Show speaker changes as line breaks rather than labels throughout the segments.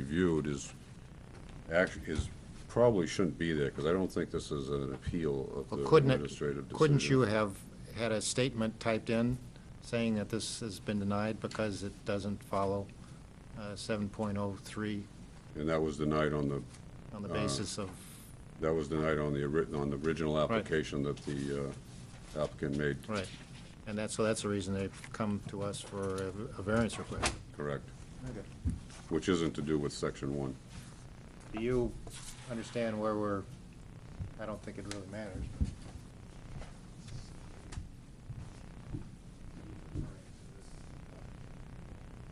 reviewed is, actually, is, probably shouldn't be there, because I don't think this is an appeal of
Well,
the
couldn't it-
administrative decision.
Couldn't you have had a statement typed in saying that this has been denied because it doesn't follow uh, 7.03
And that was denied on the,
on the basis of,
that was denied on the, ori- on the original application that the uh, applicant made,
right. And that's, so that's the reason they've come to us for a a variance request.
correct? Which isn't to do with section one.
Do you understand where we're, I don't think it really matters.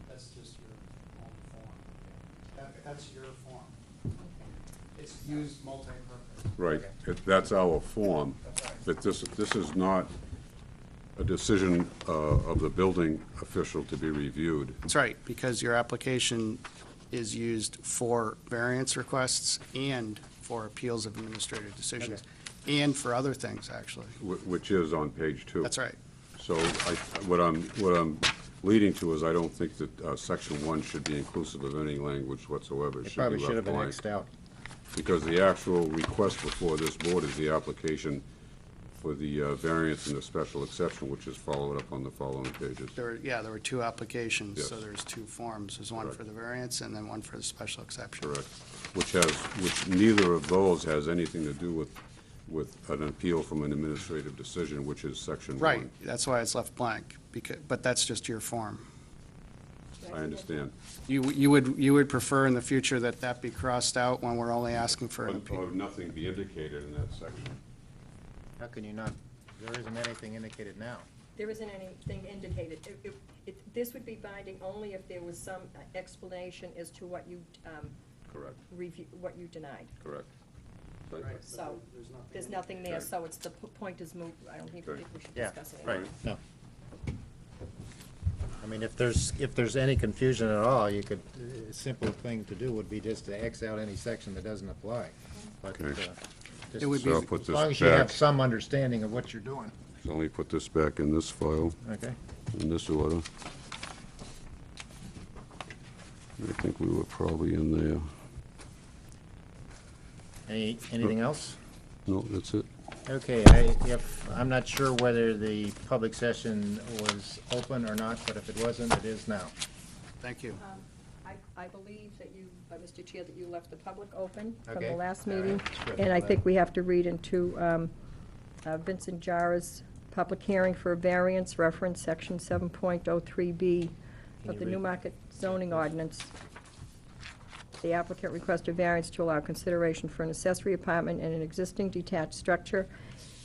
That's just your own form. That, that's your form. It's used multi-purpose.
Right, It- that's our form, but this, this is not a decision uh, of the building official to be reviewed.
That's right, because your application is used for variance requests and for appeals of administrative decisions, and for other things, actually.
Wh- Which is on page two.
That's right.
So I, what I'm, what I'm leading to is I don't think that uh, section one should be inclusive of any language whatsoever. It
It probably
be
should have
left
been
blank.
Xed out.
Because the actual request before this board is the application for the uh, variance and the special exception, which is followed up on the following pages.
There, were- yeah, there were two applications, so
Yes.
there's two forms. There's one
Correct.
for the variance and then one for the special exception.
Correct. Which has, which neither of those has anything to do with, with an appeal from an administrative decision, which is section one.
Right, that's why it's left blank, because, but that's just your form.
I understand.
You, you would, you would prefer in the future that that be crossed out when we're only asking for an
But- Or
appeal?
nothing be indicated in that section.
How can you not, there isn't anything indicated now.
There isn't anything indicated. It- it- it- This would be binding only if there was some uh, explanation as to what you um,
Correct,
review, what you denied.
correct. But-
So, there's nothing there, so it's, the p- point is moot. I don't even think we should
Yeah,
discuss it.
right,
anymore.
no. I mean, if there's, if there's any confusion at all, you could, a simple thing to do would be just to X out any section that doesn't apply. But, uh,
Okay.
just-
It would be-
So I'll put
As
this
long as you have
back, so
some understanding of what you're doing.
let me put this back in this file,
Okay.
in this order. I think we were probably in there.
Any, anything else?
No, that's it.
Okay, I, if, I'm not sure whether the public session was open or not, but if it wasn't, it is now.
Thank you.
Um, I, I believe that you, uh, Mr. Chair, that you left the public open from
Okay.
the last
All right.
meeting.
That's good.
And I think we have to read into um, uh, Vincent Jara's public hearing for a variance reference, section 7.03B
Can
of
you
the
read
New
that?
Market zoning ordinance. The applicant requests a variance to allow consideration for an accessory apartment and an existing detached structure.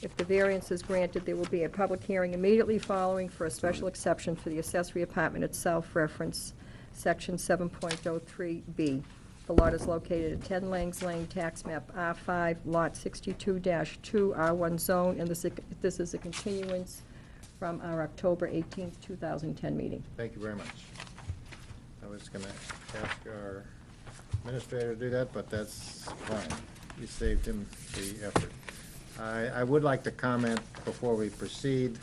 If the variance is granted, there will be a public hearing immediately following for a special exception for the accessory apartment itself reference, section 7.03B. The lot is located at 10 Langs Lane, tax map R5, lot 62-2, R1 zone, and this this is a continuance from our October 18, 2010 meeting.
Thank you very much. I was gonna ask our administrator to do that, but that's fine. You saved him the effort. I, I would like to comment before we proceed.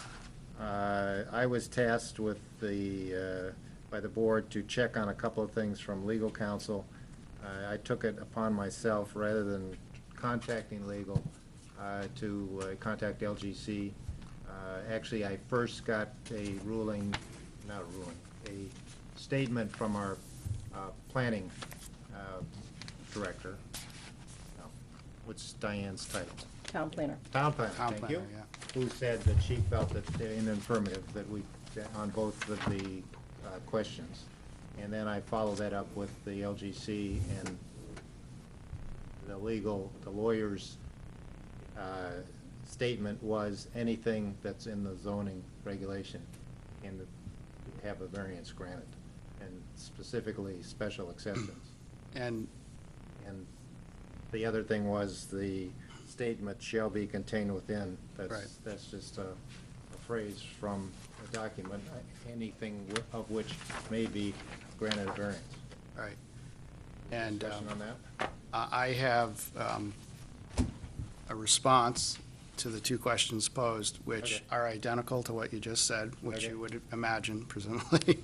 Uh, I was tasked with the, uh, by the board to check on a couple of things from legal counsel. I, I took it upon myself, rather than contacting legal, uh, to uh, contact LGC. Uh, Actually, I first got a ruling, not a ruling, a statement from our uh, planning uh, director, no, what's Diane's title?
Town planner.
Town planner,
Town
thank you.
planner, yeah.
Who said that she felt that, they're in the affirmative, that we, that on both of the uh, questions. And then I followed that up with the LGC and the legal, the lawyer's uh, statement was anything that's in the zoning regulation and have a variance granted, and specifically special exceptions.
And
And the other thing was the statement shall be contained within.
Right.
That's, that's just a a phrase from a document, anything wi- of which may be granted a variance.
All right. And
Discussion on
um,
that?
I I have um, a response to the two questions posed, which
Okay.
are identical to what you just said, which
Okay.
you would imagine presumably.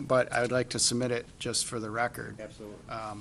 But I would like to submit it just for the record.
Absolutely.
Um,